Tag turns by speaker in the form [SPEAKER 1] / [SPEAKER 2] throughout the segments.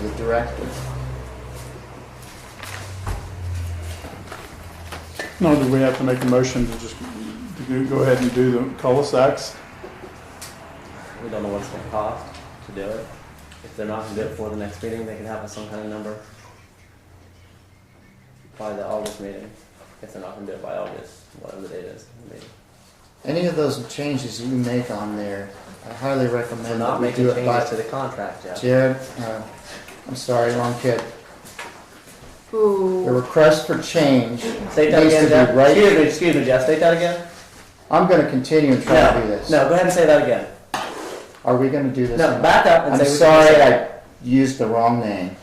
[SPEAKER 1] his directive.
[SPEAKER 2] Nor do we have to make a motion to just to do- go ahead and do the cul-de-sacs.
[SPEAKER 1] We don't know what it's gonna cost to do it. If they're not gonna do it before the next meeting, they can have us some kind of number. By the August meeting, if they're not gonna do it by August, whatever the date is. of the meeting.
[SPEAKER 3] Any of those changes you make on there, I highly
[SPEAKER 1] We're
[SPEAKER 3] recommend that
[SPEAKER 1] not
[SPEAKER 3] we
[SPEAKER 1] making
[SPEAKER 3] do it
[SPEAKER 1] changes
[SPEAKER 3] by.
[SPEAKER 1] to the contract yet.
[SPEAKER 3] Jared, uh, I'm sorry, wrong kid. The
[SPEAKER 4] Ooh.
[SPEAKER 3] request for change,
[SPEAKER 1] Say that
[SPEAKER 3] Needs to
[SPEAKER 1] again,
[SPEAKER 3] be
[SPEAKER 1] Jeff.
[SPEAKER 3] right-
[SPEAKER 1] Excuse me, excuse me, Jeff, say that again.
[SPEAKER 3] I'm gonna continue and try to do
[SPEAKER 1] No,
[SPEAKER 3] this.
[SPEAKER 1] no, go ahead and say that again.
[SPEAKER 3] Are we gonna do this? or
[SPEAKER 1] No,
[SPEAKER 3] not?
[SPEAKER 1] back up and
[SPEAKER 3] I'm
[SPEAKER 1] say. what you
[SPEAKER 3] sorry,
[SPEAKER 1] said.
[SPEAKER 3] I used the wrong name.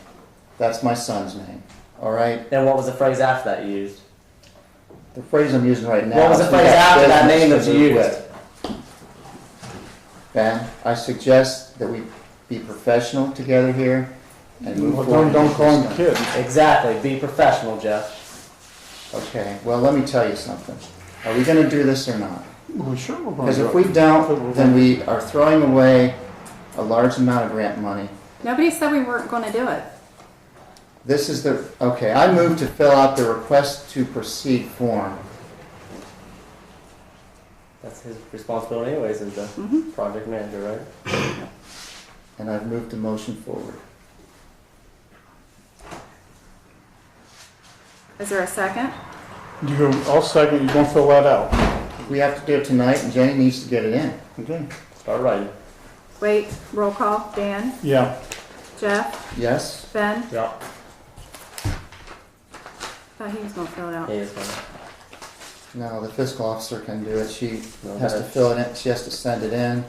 [SPEAKER 3] That's my son's name, all right?
[SPEAKER 1] Then what was the phrase after that you used?
[SPEAKER 3] The phrase I'm using right now.
[SPEAKER 1] What was
[SPEAKER 3] is
[SPEAKER 1] the
[SPEAKER 3] we
[SPEAKER 1] phrase
[SPEAKER 3] got
[SPEAKER 1] after that name
[SPEAKER 3] business
[SPEAKER 1] that
[SPEAKER 3] to
[SPEAKER 1] you
[SPEAKER 3] do
[SPEAKER 1] used?
[SPEAKER 3] with. Ben, I suggest that we be professional together here and move
[SPEAKER 2] Well,
[SPEAKER 3] forward.
[SPEAKER 2] Don't, don't
[SPEAKER 3] with
[SPEAKER 2] call
[SPEAKER 3] this
[SPEAKER 2] him kid.
[SPEAKER 1] Exactly, be professional, Jeff.
[SPEAKER 3] stuff. Okay, well, let me tell you something. Are we gonna do this or not?
[SPEAKER 2] Well, sure we're going
[SPEAKER 3] Because
[SPEAKER 2] to.
[SPEAKER 3] if we don't, then we are throwing away a large amount of grant money.
[SPEAKER 4] Nobody said we weren't going to do it.
[SPEAKER 3] This is the, okay, I move to fill out the request to proceed form.
[SPEAKER 1] That's his responsibility anyways as the
[SPEAKER 4] Mhm.
[SPEAKER 1] project manager, right?
[SPEAKER 3] And I've moved the motion forward.
[SPEAKER 4] Is there a second?
[SPEAKER 2] You go, I'll second, you're gonna fill that out.
[SPEAKER 3] We have to do it tonight, and Jenny needs to get it in.
[SPEAKER 2] Okay.
[SPEAKER 1] Start writing.
[SPEAKER 4] Wait, roll call. Dan,
[SPEAKER 2] Yeah,
[SPEAKER 4] Jeff,
[SPEAKER 3] Yes?
[SPEAKER 4] Ben.
[SPEAKER 1] Yeah.
[SPEAKER 4] Thought he was going to fill it
[SPEAKER 1] He
[SPEAKER 4] out.
[SPEAKER 1] is gonna-
[SPEAKER 3] No, the fiscal officer can do it. She
[SPEAKER 1] No,
[SPEAKER 3] has to
[SPEAKER 1] that's-
[SPEAKER 3] fill it in, she has to send it in.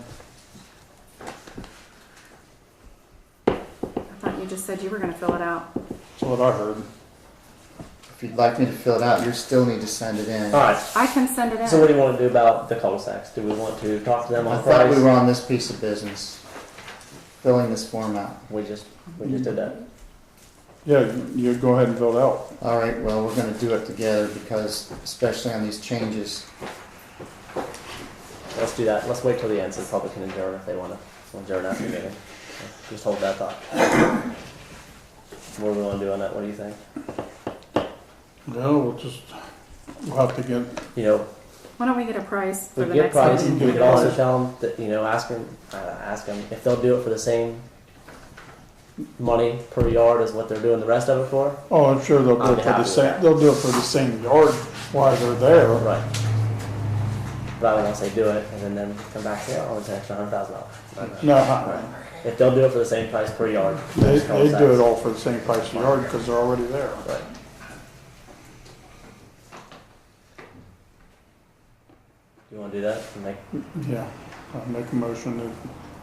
[SPEAKER 4] I thought you just said you were going to fill it out.
[SPEAKER 2] that's what I heard.
[SPEAKER 3] If you'd like me to fill it out, you still need to send it in.
[SPEAKER 2] Oh,
[SPEAKER 3] I
[SPEAKER 1] Alright,
[SPEAKER 4] I can send it in.
[SPEAKER 1] so what do you wanna do about the cul-de-sacs? Do we want to talk to them on
[SPEAKER 3] thought we
[SPEAKER 1] price?
[SPEAKER 3] were on this piece of business, filling this form out.
[SPEAKER 1] We just, we just did that.
[SPEAKER 2] Yeah, you go ahead and fill it out.
[SPEAKER 3] All right, well, we're gonna do it together because, especially on these changes,
[SPEAKER 1] Let's do that. Let's wait till the end so the public can adjourn if they wanna, adjourn after the meeting. Just hold that thought. What do we wanna do on that? What do you think?
[SPEAKER 2] No, we'll just, we'll have to get,
[SPEAKER 1] You know,
[SPEAKER 4] Why don't we get a price for
[SPEAKER 1] We
[SPEAKER 4] the
[SPEAKER 1] get
[SPEAKER 4] next
[SPEAKER 1] price,
[SPEAKER 4] meeting?
[SPEAKER 1] we could also tell them that, you know, ask them, uh, ask them if they'll do it for the same money per yard as what they're doing the rest of it for.
[SPEAKER 2] oh, I'm sure they'll do
[SPEAKER 1] I'll
[SPEAKER 2] it
[SPEAKER 1] be
[SPEAKER 2] for the
[SPEAKER 1] happy with
[SPEAKER 2] same,
[SPEAKER 1] that.
[SPEAKER 2] they'll do it for the same yard while they're there.
[SPEAKER 1] Right. Rather than say do it and then them come back and say, oh, it's an extra hundred thousand dollars.
[SPEAKER 2] No,
[SPEAKER 1] If they'll do it for the same price per yard.
[SPEAKER 2] they,
[SPEAKER 1] just call
[SPEAKER 2] they do it
[SPEAKER 1] tax.
[SPEAKER 2] all for the same price a yard because they're already there.
[SPEAKER 1] Right. You wanna do that? Make,
[SPEAKER 2] Yeah, I make a motion that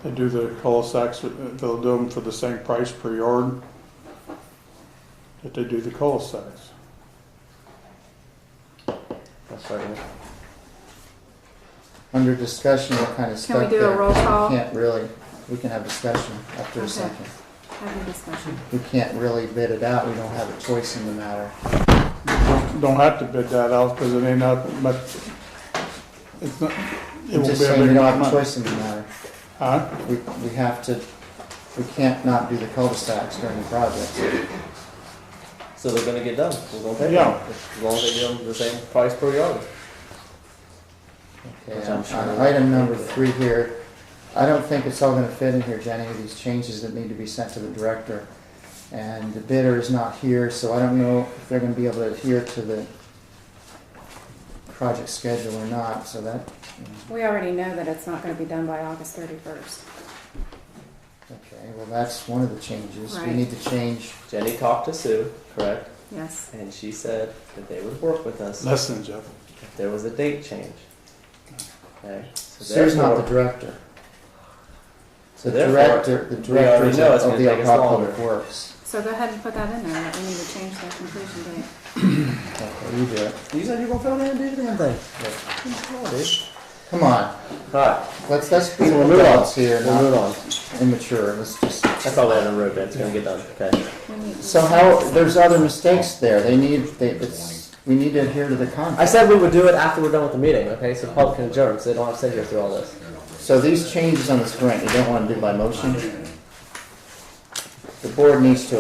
[SPEAKER 2] they do the cul-de-sacs, uh, they'll do them for the same price per yard that they do the cul-de-sacs.
[SPEAKER 1] let's start with-
[SPEAKER 3] under discussion, what kind of
[SPEAKER 4] Can we
[SPEAKER 3] stuff
[SPEAKER 4] do a
[SPEAKER 3] there.
[SPEAKER 4] roll call?
[SPEAKER 3] Can't really, we can have discussion after a
[SPEAKER 4] Okay.
[SPEAKER 3] second.
[SPEAKER 4] Have a discussion.
[SPEAKER 3] We can't really bid it out, we don't have a choice in the matter.
[SPEAKER 2] Don't don't have to bid that out because it ain't up much, it's not, it
[SPEAKER 3] I'm
[SPEAKER 2] won't
[SPEAKER 3] just
[SPEAKER 2] be a
[SPEAKER 3] saying
[SPEAKER 2] big
[SPEAKER 3] we don't have a
[SPEAKER 2] amount of money.
[SPEAKER 3] choice in the matter.
[SPEAKER 2] Huh?
[SPEAKER 3] We, we have to, we can't not do the cul-de-sacs during the project.
[SPEAKER 1] So they're gonna get done. We're gonna pay them.
[SPEAKER 2] Yeah.
[SPEAKER 1] As long as they do them the same price per yard.
[SPEAKER 3] Okay,
[SPEAKER 1] Which I'm
[SPEAKER 3] on
[SPEAKER 1] sure
[SPEAKER 3] on
[SPEAKER 1] we'll-
[SPEAKER 3] item number three here, I don't think it's all gonna fit in here, Jenny, with these changes that need to be sent to the director. And the bidder is not here, so I don't know if they're gonna be able to adhere to the project schedule or not, so that,
[SPEAKER 4] We already know that it's not going to be done by August 31st.
[SPEAKER 3] okay, well, that's one of the changes. We
[SPEAKER 4] Right.
[SPEAKER 3] need to change,
[SPEAKER 1] Jenny talked to Sue, correct?
[SPEAKER 4] Yes.
[SPEAKER 1] And she said that they would work with us
[SPEAKER 2] Listen, Jeff,
[SPEAKER 1] if there was a date change. Okay? So
[SPEAKER 3] Sue's not the
[SPEAKER 1] therefore-
[SPEAKER 3] director.
[SPEAKER 1] So
[SPEAKER 3] The
[SPEAKER 1] therefore,
[SPEAKER 3] director, the
[SPEAKER 1] we already
[SPEAKER 3] director
[SPEAKER 1] know it's
[SPEAKER 3] of
[SPEAKER 1] gonna
[SPEAKER 3] the
[SPEAKER 1] take us
[SPEAKER 3] Alcoa
[SPEAKER 1] longer.
[SPEAKER 3] Public Works.
[SPEAKER 4] So go ahead and put that in there. that We need to change that completion date.
[SPEAKER 3] Okay, you do it.
[SPEAKER 1] You said you were gonna fill in and do the damn thing. Come on, dude.
[SPEAKER 3] Come on,
[SPEAKER 1] Alright,
[SPEAKER 3] let's, let's be
[SPEAKER 1] we'll move on.
[SPEAKER 3] adults here,
[SPEAKER 1] We'll move
[SPEAKER 3] not
[SPEAKER 1] on.
[SPEAKER 3] immature, let's just.
[SPEAKER 1] That's all that on the road, man. It's gonna get done, okay?
[SPEAKER 4] We need-
[SPEAKER 3] So how, there's other mistakes there, they need, they, it's, we need to adhere to the
[SPEAKER 1] I
[SPEAKER 3] contract.
[SPEAKER 1] said we would do it after we're done with the meeting, okay? So the public can adjourn, so they don't have to sit here through all this.
[SPEAKER 3] So these changes on this grant, you don't wanna do by motion? the board needs to